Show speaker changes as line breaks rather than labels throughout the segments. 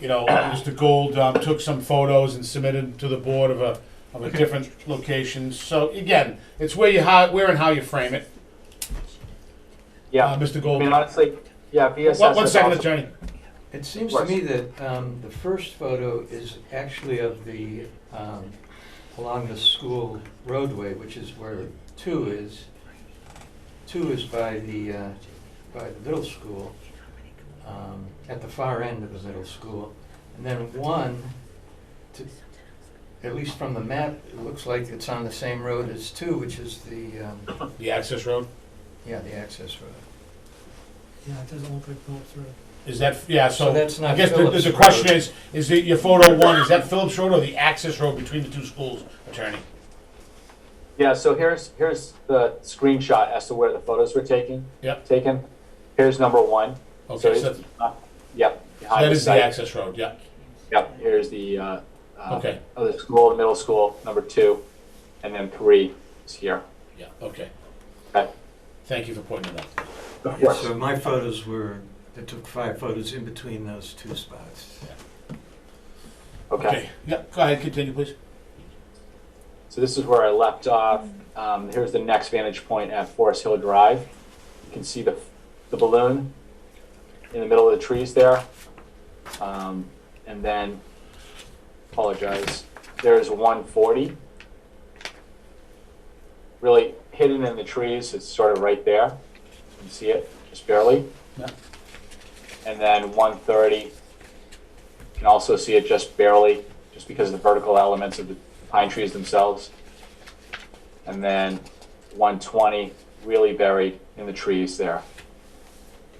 you know, Mr. Gould um, took some photos and submitted to the board of a, of a different location. So again, it's where you, how, where and how you frame it.
Yeah,
Uh, Mr.
I
Gold,
mean, honestly, yeah, VSS
one, one
is
second,
awesome.
attorney.
It seems to me that um, the first photo is actually of the, um, along the school roadway, which is where two is. Two is by the, uh, by the middle school, um, at the far end of the middle school. And then one, to- at least from the map, it looks like it's on the same road as two, which is the, um,
The access road,
yeah, the access road.
Yeah, it doesn't look like Phillips Road.
is that, yeah,
So
so
that's
I
not
guess
Phillips
the, the
Road.
question is, is it your photo one, is that Phillips Road or the access road between the two schools, attorney?
Yeah, so here's, here's the screenshot as to where the photos were taken.
Yep.
Taken. Here's number one. So
Okay,
it's-
so so
Yep. behind
that is the
site.
access road, yeah,
Yep, here's the, uh, uh,
okay,
of the school, middle school, number two, and then three is here.
yeah, okay.
Okay.
Thank you for pointing it out.
Of
Yeah,
course.
so my photos were, I took five photos in between those two spots.
Okay,
Yeah, go ahead, continue, please.
so this is where I left off. Um, here's the next vantage point at Forest Hill Drive. You can see the, the balloon in the middle of the trees there. Um, and then, apologize, there's 140. Really hidden in the trees, it's sort of right there. You can see it just barely.
Yeah.
And then 130, you can also see it just barely, just because of the vertical elements of the pine trees themselves. And then 120, really buried in the trees there.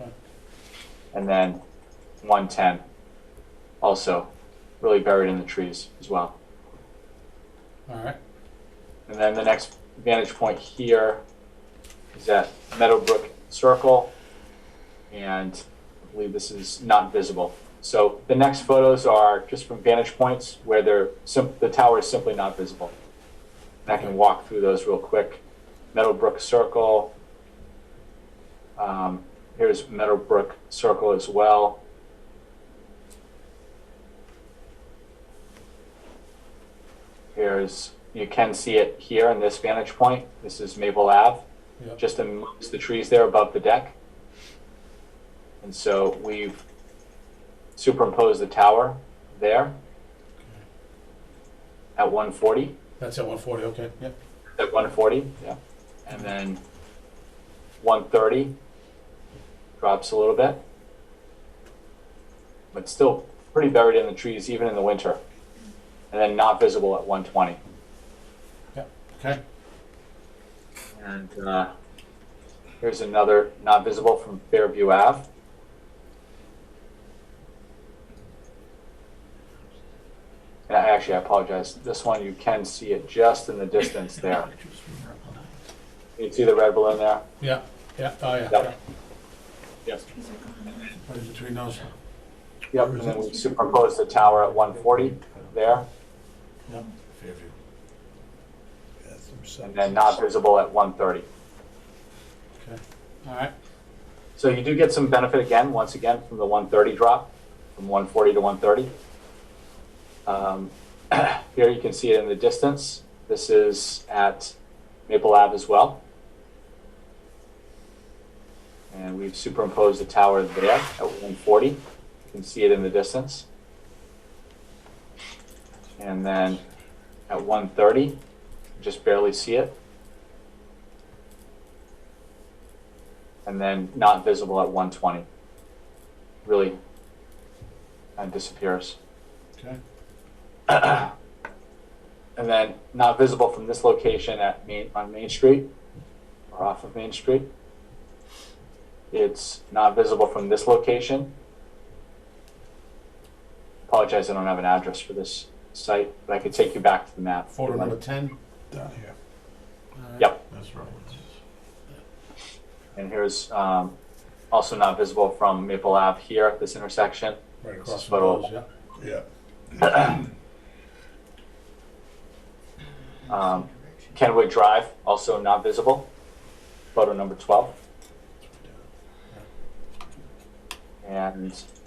Okay.
And then 110, also really buried in the trees as well.
All right,
And then the next vantage point here is at Meadowbrook Circle. And I believe this is not visible. So the next photos are just from vantage points where they're sim- the tower is simply not visible. And I can walk through those real quick. Meadowbrook Circle. Um, here's Meadowbrook Circle as well. Here's, you can see it here in this vantage point. This is Maple Ave,
Yep.
just amongst the trees there above the deck. And so we've superimposed the tower there at 140,
that's at one forty, okay, yeah.
at 140, yeah. And then 130 drops a little bit, but still pretty buried in the trees, even in the winter. And then not visible at 120.
Okay,
And uh, here's another not visible from Fairview Ave. And I- actually, I apologize. This one you can see it just in the distance there. You can see the red balloon there.
yeah, yeah, oh, yeah, yeah.
Yep. Yes.
What is between those?
Yep. And then we superimpose the tower at 140 there,
Fairview.
and then not visible at 130.
All right,
So you do get some benefit again, once again, from the 130 drop, from 140 to 130. Um, here you can see it in the distance. This is at Maple Ave as well. And we've superimposed the tower there at 140. You can see it in the distance. And then at 130, you just barely see it. and then not visible at 120. Really, and disappears.
okay.
And then not visible from this location at Main, on Main Street or off of Main Street. It's not visible from this location. Apologize, I don't have an address for this site, but I could take you back to the map.
Photo number ten?
Down here.
All right.
Yep.
That's right.
And here's um, also not visible from Maple Ave here at this intersection.
Right across from
Photo.
those, yeah.
Yeah,
Um, Kenwood Drive, also not visible, photo number 12. And